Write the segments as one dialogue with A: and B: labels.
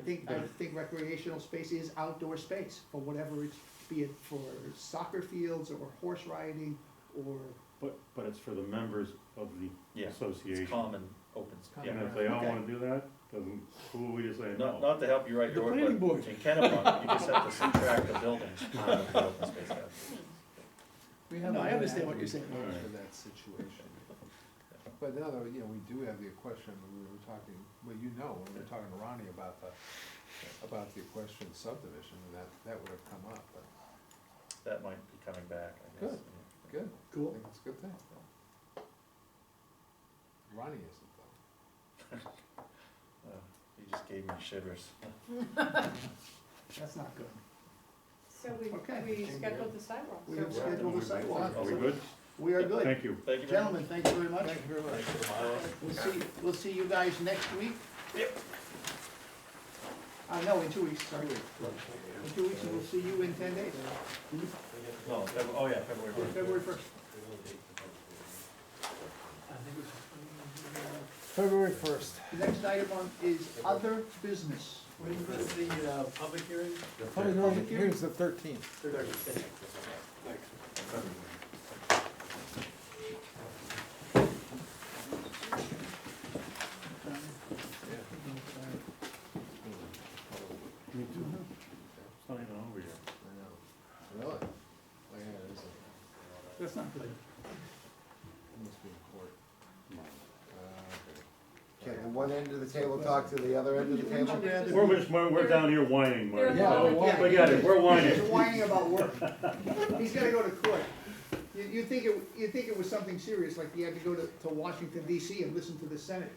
A: think, I think recreational space is outdoor space for whatever it's, be it for soccer fields or horse riding or,
B: But, but it's for the members of the
C: Yeah,
B: association.
C: It's common, open, s-
A: Common.
C: yeah.
B: And if they all
A: Okay.
B: wanna do that, then who are we to say
C: Not,
B: no?
C: not to help you write
D: The
C: your
D: planning
C: work,
D: board.
C: but in Kennebunk, you just have to subtract the buildings out of the open space allocation.
A: we have. No, I understand what you're saying.
B: All right.
E: For that situation. But now, though, you know, we do have the equestrian, we were talking, well, you know, when we were talking to Ronnie about the, about the equestrian subdivision, and that, that would have come up, but,
C: That might be coming back, I guess.
E: Good. good, I
A: Cool.
E: think it's a good thing. Ronnie isn't though.
C: Uh, You just gave me shivers.
A: That's not good.
F: So we,
A: Okay.
F: we scheduled the sidewalk.
A: We
F: so
A: have scheduled a sidewalk.
B: Are we good?
A: We are good.
B: Thank you.
C: Thank you very much.
G: Gentlemen, thank you very much.
E: Thank you very much.
G: We'll see, we'll see you guys next week.
A: Uh, no, in two weeks, sorry. In two weeks, and we'll see you in ten days,
C: No, Feb- oh yeah, February.
A: on February first.
E: February first.
A: The next item on is other business.
G: When was the, uh, public hearing?
A: Public hearing.
E: the thirteenth.
B: Me too. It's not even over yet.
E: I know, really? Oh, yeah, it is, it
A: That's not good.
E: must be in court. Uh,
H: Okay, and one end of the table talk to the other end of the table?
B: We're just, we're, we're down here whining, Marty.
F: Yeah,
B: so
E: we're whining.
B: Forget it, we're
A: He's
B: whining.
A: whining about work. He's gotta go to court. You, you think it, you think it was something serious, like he had to go to, to Washington DC and listen to the Senate.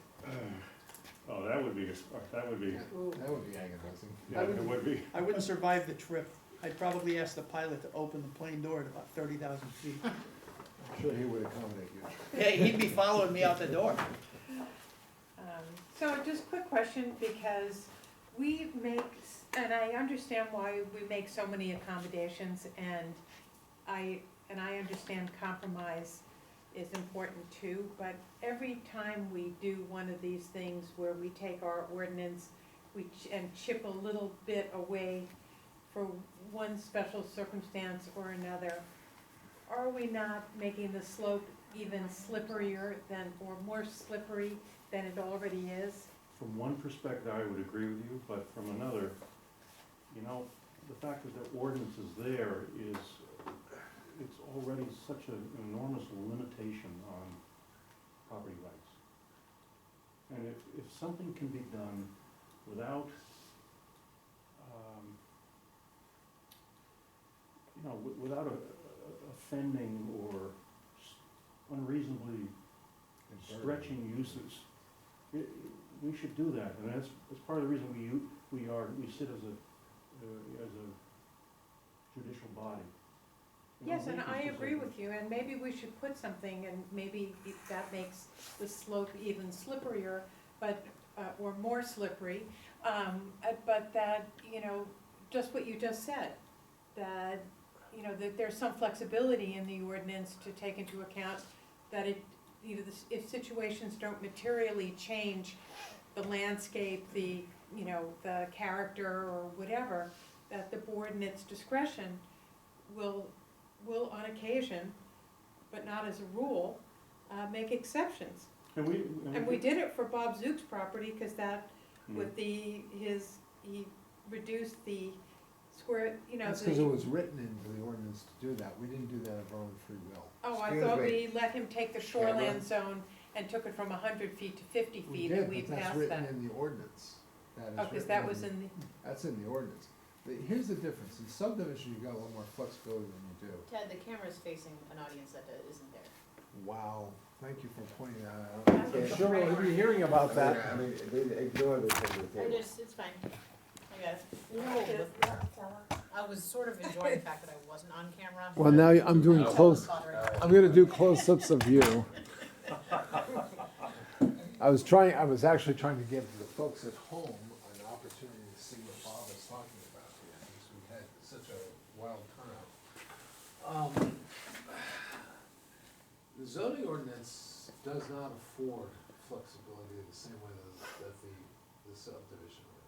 B: Oh, that would be, that would be,
E: That would be agonizing.
B: yeah, it would be.
G: I wouldn't survive the trip. I'd probably ask the pilot to open the plane door at about thirty thousand feet.
E: I'm sure he would accommodate you.
G: Yeah, he'd be following me out the door.
F: Um, So just quick question, because we make, s- and I understand why we make so many accommodations, and I, and I understand compromise is important too, but every time we do one of these things where we take our ordinance, we, ch- and chip a little bit away for one special circumstance or another, are we not making the slope even slipperier than, or more slippery than it already is.
B: From one perspective, I would agree with you, but from another, you know, the fact that the ordinance is there is, it's already such an enormous limitation on property rights. And if, if something can be done without, um, you know, wi- without a- a- offending or s- unreasonably stretching uses. I- i- We should do that, and that's, that's part of the reason we, u- we are, we sit as a, uh, as a judicial body. We don't
F: Yes, and
B: make
F: I
B: these
F: agree
B: decisions.
F: with you, and maybe we should put something, and maybe if that makes the slope even slipperier, but, uh, or more slippery. Um, uh, but that, you know, just what you just said, that, you know, that there's some flexibility in the ordinance to take into account that it, you know, this- if situations don't materially change the landscape, the, you know, the character or whatever, that the board in its discretion will, will on occasion, but not as a rule, uh, make exceptions.
B: And we.
F: And
E: Mm-hmm.
F: we did it for Bob Zook's property, cause that,
B: Mm.
F: with the, his, he reduced the square, you know,
E: That's because it
F: the,
E: was written into the ordinance to do that. We didn't do that of our own free will.
F: oh, I
H: Excuse
F: thought
H: me.
F: we let him take the shoreland zone and took it from hundred feet to fifty
E: We
F: feet, and
E: did,
F: we
E: but that's
F: passed
E: written
F: that.
E: in the ordinance. That is
F: Oh, cause
E: written
F: that
E: in
F: was
E: the-
F: in the,
E: That's in the ordinance. But here's the difference. In subdivision, you've got a little more flexibility than you do.
I: Ted, the camera's facing an audience that uh, isn't there.
E: Wow, thank you for pointing that out.
H: Okay.
E: Sure, we'll be hearing about
H: I mean, they ignore this end of the
I: I
H: table.
I: just, it's fine. I got
F: oh,
I: it. I was sort of enjoying the fact that I wasn't on camera.
D: Well, now I'm doing
I: That was
D: close,
I: bothering me.
D: I'm gonna do close-ups of you.
E: I was trying, I was actually trying to give the folks at home an opportunity to see what Bob is talking about here, because we had such a wild turnout. Um, The zoning ordinance does not afford flexibility in the same way that that the, the subdivision